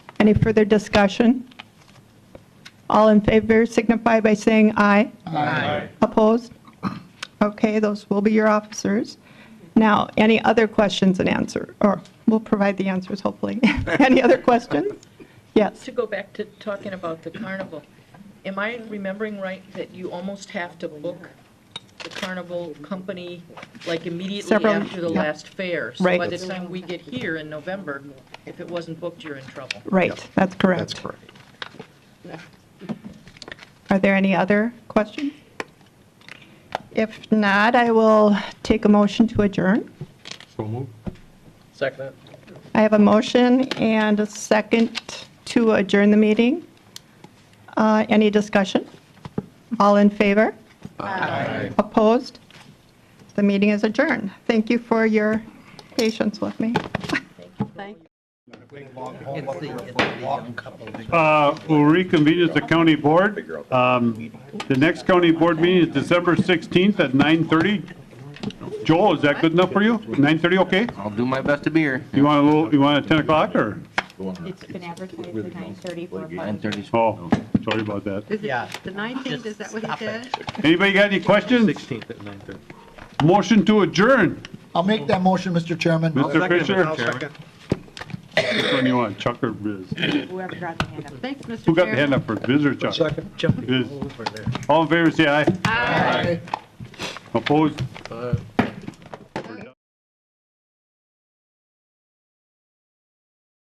Any further discussion? All in favor signify by saying aye. Aye. Opposed? Okay, those will be your officers. Now, any other questions and answer, or we'll provide the answers, hopefully. Any other questions? Yes. To go back to talking about the carnival, am I remembering right that you almost have to book the carnival company like immediately Several- after the yeah. last fair? Right. So by the time we get here in November, if it wasn't booked, you're in trouble. Right, that's correct. That's correct. Are there any other questions? If not, I will take a motion to adjourn. So moved. Second it. I have a motion and a second to adjourn the meeting. Uh, Any discussion? All in favor? Aye. Opposed? The meeting is adjourned. Thank you for your patience with me. Uh, We'll reconvene as the county board. Um, The next county board meeting is December 16th at 9:30. Joel, is that good enough for you? 9:30, okay? I'll do my best to be here. You want a little, you want a 10 o'clock or? It's been advertised at 9:30 for a Nine public. thirty. Oh, sorry about that. Is it the 19th, is that what he said? Anybody got any questions? Sixteenth at nine thirty. Motion to adjourn. I'll make that motion, Mr. Chairman. Mr. Fisher? Which one you want, Chuck or Biz? Whoever got the hand up. Thanks, Mr. Chairman. Who got the hand up for Biz or Chuck? Second. Jumping Biz. over there. All in favor, say aye. Aye. Opposed? Five.